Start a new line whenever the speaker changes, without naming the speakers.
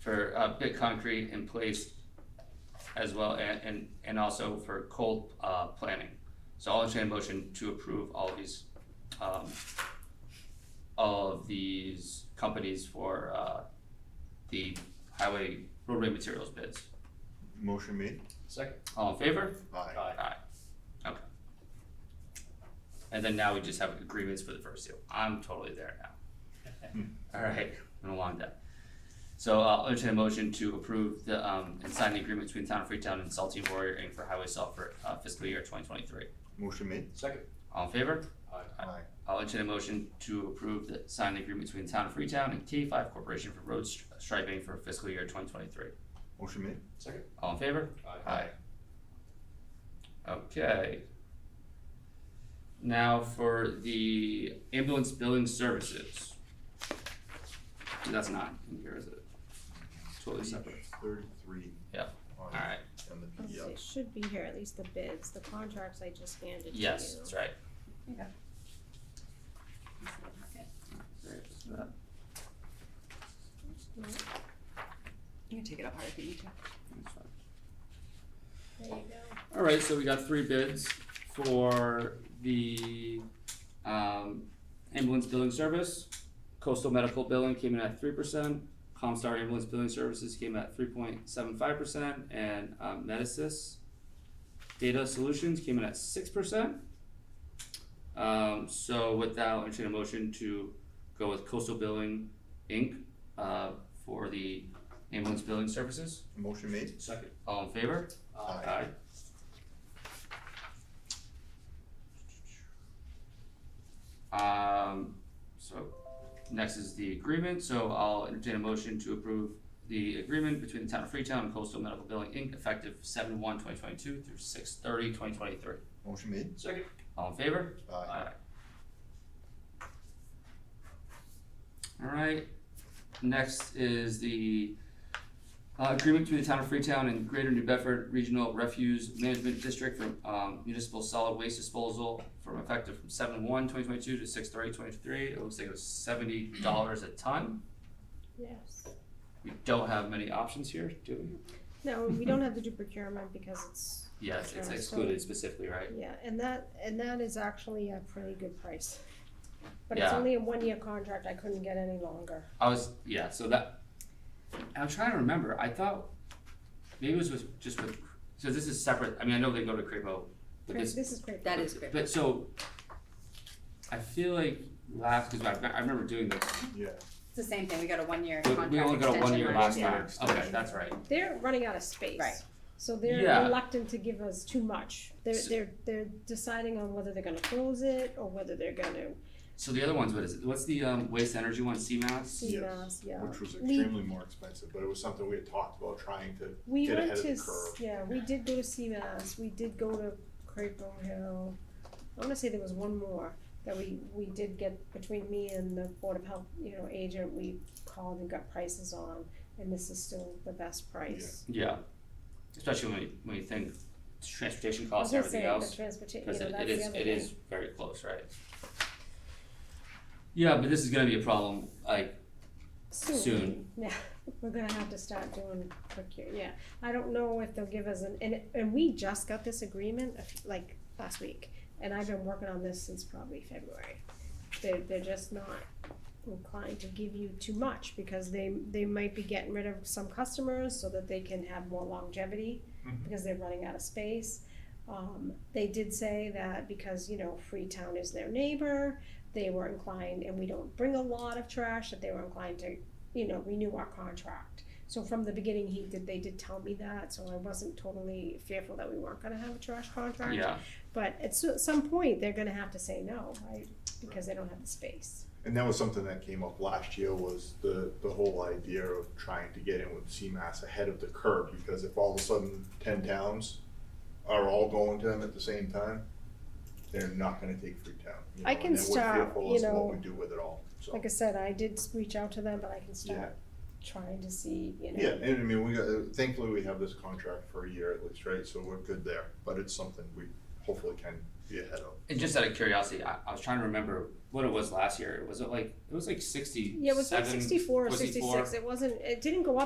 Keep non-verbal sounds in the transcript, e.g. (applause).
for, uh, bit concrete in place as well, and, and, and also for cold, uh, planning. So I'll entertain a motion to approve all of these, um, all of these companies for, uh, the highway roadway materials bids.
Motion made.
Second.
All in favor?
Aye.
Okay. And then now we just have agreements for the first two. I'm totally there now. Alright, been a long day. So uh, I'll entertain a motion to approve the, um, and sign the agreement between Town of Freetown and Salty Warrior Inc. for highway salt for uh, fiscal year twenty twenty-three.
Motion made.
Second.
All in favor? Aye.
Aye.
I'll entertain a motion to approve the signed agreement between Town of Freetown and K five Corporation for road stri- striping for fiscal year twenty twenty-three.
Motion made.
Second.
All in favor?
Aye.
Okay. Now for the ambulance billing services. That's not in here, is it? Totally separate,
Page Thirty-three.
Yeah.
On
alright,
on the E
Let's see,
PDFs.
It should be here, at least the bids, the contracts I just handed to you.
yes, that's right.
Okay.
There's that.
No,
You can take it up higher if you need to.
That's fine.
There you go.
Alright, so we got three bids for the um ambulance billing service. Coastal Medical Billing came in at three percent, Comstar Ambulance Billing Services came at three point seven five percent, and um Medicis Data Solutions came in at six percent. Um so with that, I'll entertain a motion to go with Coastal Billing Inc. uh for the ambulance billing services.
Motion made.
Second.
All in favor?
Aye.
Aye. Um, so, next is the agreement, so I'll entertain a motion to approve the agreement between the town of Freetown and Coastal Medical Billing Inc. effective seven one twenty twenty-two through six thirty twenty twenty-three.
Motion made.
Second.
All in favor?
Aye.
Alright, next is the uh agreement between the town of Freetown and Greater New Bedford Regional Refuse Management District for um municipal solid waste disposal from effective from seven one twenty twenty two to six thirty twenty three, it looks like it was seventy dollars a ton.
Yes.
We don't have many options here, do we?
No, we don't have to do procurement because it's,
Yes, it's
Sure.
excluded specifically, right?
yeah, and that, and that is actually a pretty good price. But it's
Yeah.
only a one-year contract, I couldn't get any longer.
I was yeah. So that I'm trying to remember. I thought maybe it was with, just with. So this is separate. I mean, I know they go to Cremo, but
This
this.
is great.
That is great.
But so I feel like last because I, I remember doing this.
Yeah.
It's the same thing, we got a one-year
but
contract
we only
extension.
got a one year
right?
last
yeah.
time. Okay, that's right.
They're running out of space.
Right.
So
Yeah.
they're reluctant to give us too much. They're,
So-
they're, they're deciding on whether they're gonna close it or whether they're gonna
So the other ones, what is it? What's the um, waste energy one? CMAS.
see
Yes,
us, yeah.
Which was
We-
extremely more expensive, but it was something we had talked about trying to
We
get
went
ahead of
to,
the
s-
curve.
yeah, we did go to CMAS, we did go to Crapo Hill. I wanna say there was one more that we, we did get between me and the Board of Health, you know, agent, we called and got prices on, and this is still the best price.
Yeah. Especially when you, when you think transportation
I
costs,
was gonna
everything
say,
else.
The transportation,
Because
you know,
it, it
that's the
is,
other
it
thing.
is very close, right? Yeah, but this is gonna be a problem, like, soon.
Yeah, (laughs) we're gonna have to start doing procure, yeah. I don't know if they'll give us an, and, and we just got this agreement a few- like last week, and I've been working on this since probably February. They're, they're just not inclined to give you too much because they, they might be getting rid of some customers so that they can have more longevity
Mhm.
because they're running out of space. Um, they did say that because, you know, Freetown is their neighbor, they were inclined, and we don't bring a lot of trash, that they were inclined to you know, renew our contract. So from the beginning, he did, they did tell me that, so I wasn't totally fearful that we weren't gonna have a trash contract.
yeah,
But at so- some point, they're gonna have to say no, right? Because they don't have the space.
And that was something that came up last year was the, the whole idea of trying to get in with CMAS ahead of the curve because if all of a sudden ten towns are all going to them at the same time, they're not gonna take Freetown. you
I
know,
can
and then we're
start,
fearful
you
as to
know,
What we do with it all, so.
Like I said, I did s- reach out to them, but I can start trying to see, you know.
Yeah, and I mean, we got, thankfully, we have this contract for a year at least, right, so we're good there, but it's something we hopefully can be ahead of.
and just out of curiosity, I, I was trying to remember what it was last year, was it like, it was like sixty-seven?
Yeah, it was like sixty-four or
64.
sixty-six, it wasn't, it didn't go up